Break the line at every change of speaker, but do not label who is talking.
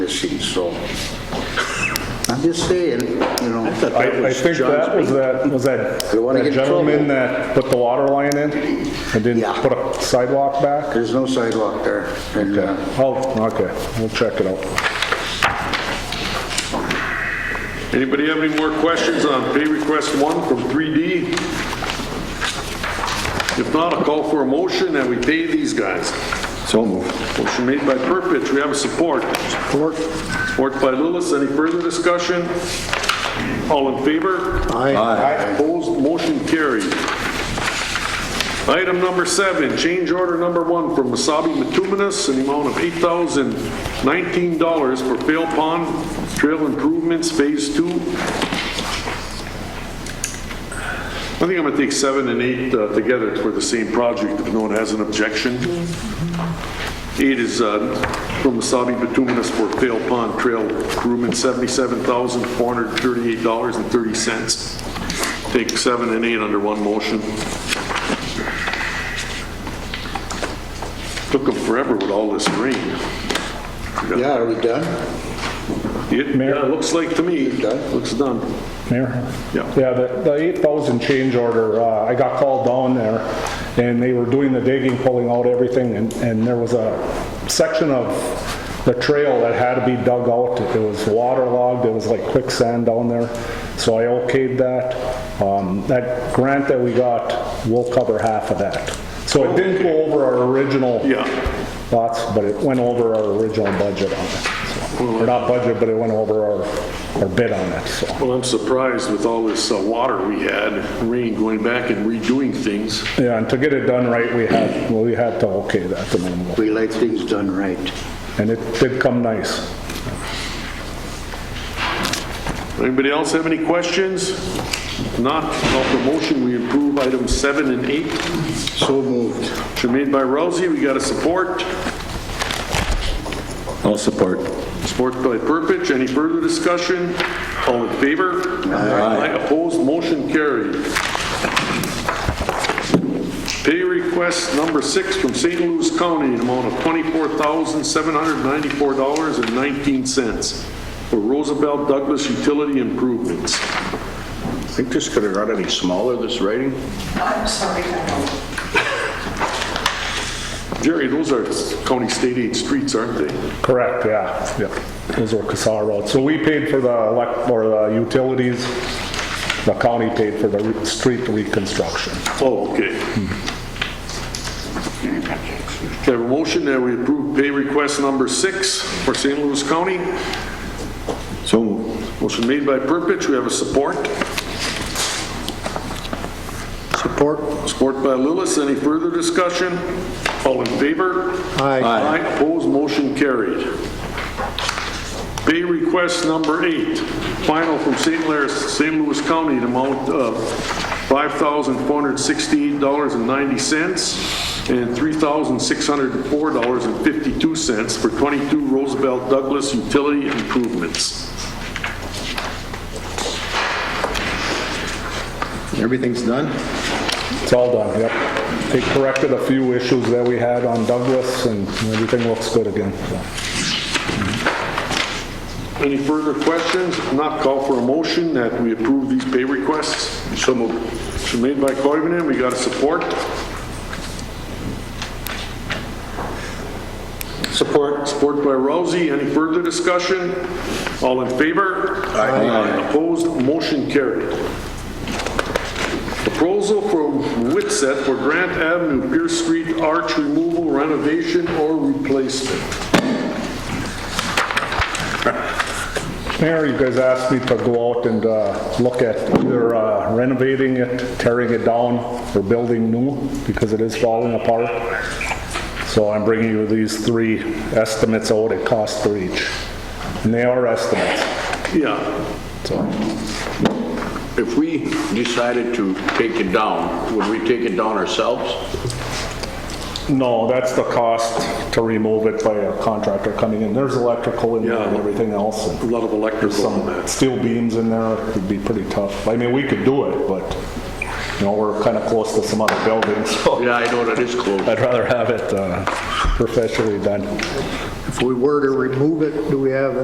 seat, so I'm just saying, you know. I thought
I, I think that was that, was that
Don't wanna
that
get in
gentleman
trouble.
that put the water line in and didn't
Yeah.
put a sidewalk back?
There's no sidewalk there. and, uh,
Oh, okay, we'll check it out.
Anybody have any more questions on pay request one from 3D? If not, I'll call for a motion and we pay these guys. So moved. Motion made by Purpich, we have a support. Support. Support by Lillis, any further discussion? All in favor? Aye. Opposed, motion carried. Item number seven, change order number one from Masabi Matuminas, an amount of $8,019 for Fail Pond Trail Improvements Phase Two. I think I'm gonna take seven and eight uh, together for the same project if no one has an objection. Eight is uh, from Masabi Bituminous for Fail Pond Trail Improvement, $77,438.30. Take seven and eight under one motion. Took them forever with all this rain.
Yeah, are we done?
It
Mayor?
yeah, it looks like to me,
Done?
looks done.
Mayor?
Yeah.
Yeah, the, the 8,000 change order, uh, I got called down there and they were doing the digging, pulling out everything and, and there was a section of the trail that had to be dug out. It was waterlogged, it was like quicksand down there. So I okayed that. Um, that grant that we got will cover half of that. So it didn't go over our original
Yeah.
lots, but it went over our original budget on it. so. Or not budget, but it went over our, our bid on it, so.
Well, I'm surprised with all this uh, water we had, rain going back and redoing things.
Yeah, and to get it done right, we had, well, we had to okay that the minimum.
We like things done right.
And it did come nice.
Anybody else have any questions? If Not, call for motion, we approve items seven and eight.
So moved.
Motion made by Rousey, we got a support.
I'll support.
Support by Purpich, any further discussion? All in favor? Aye. Opposed, motion carried. Pay request number six from St. Louis County, an amount of $24,794.19 for Roosevelt Douglas Utility Improvements.
I think this could have got any smaller, this writing.
I'm sorry, I don't.
Jerry, those are county state aid streets, aren't they?
Correct, yeah, yeah. Those were Casar roads. So we paid for the elect, or the utilities. The county paid for the re- street reconstruction.
Oh, okay. Okay, a motion that we approve pay request number six for St. Louis County.
So moved.
Motion made by Purpich, we have a support. Support. Support by Lillis, any further discussion? All in favor?
Aye.
Aye, opposed, motion carried. Pay request number eight, final from St. Louis, St. Louis County, an amount of $5,468.90 and $3,604.52 for 22 Roosevelt Douglas utility improvements.
Everything's done?
It's all done, yep. They corrected a few issues that we had on Douglas and everything looks good again. so.
Any further questions? If not, call for a motion that we approve these pay requests. So moved. Motion made by Koivunen, we got a support. Support. Support by Rousey, any further discussion? All in favor? Aye. Opposed, motion carried. Proposal from Witset for Grant Avenue Pierce Street arch removal, renovation, or replacement.
Mayor, you guys asked me to go out and uh, look at either uh, renovating it, tearing it down, or building new, because it is falling apart. So I'm bringing you these three estimates of what it costs for each. And they are estimates,
Yeah.
so.
If we decided to take it down, would we take it down ourselves?
No, that's the cost to remove it by a contractor coming in. There's electrical in there and
Yeah.
everything else. and
A lot of electrical on
Some
that.
steel beams in there, it'd be pretty tough. I mean, we could do it, but You know, we're kind of close to some other buildings, so
Yeah, I know that is closed.
I'd rather have it uh, professionally done.
If we were to remove it, do we have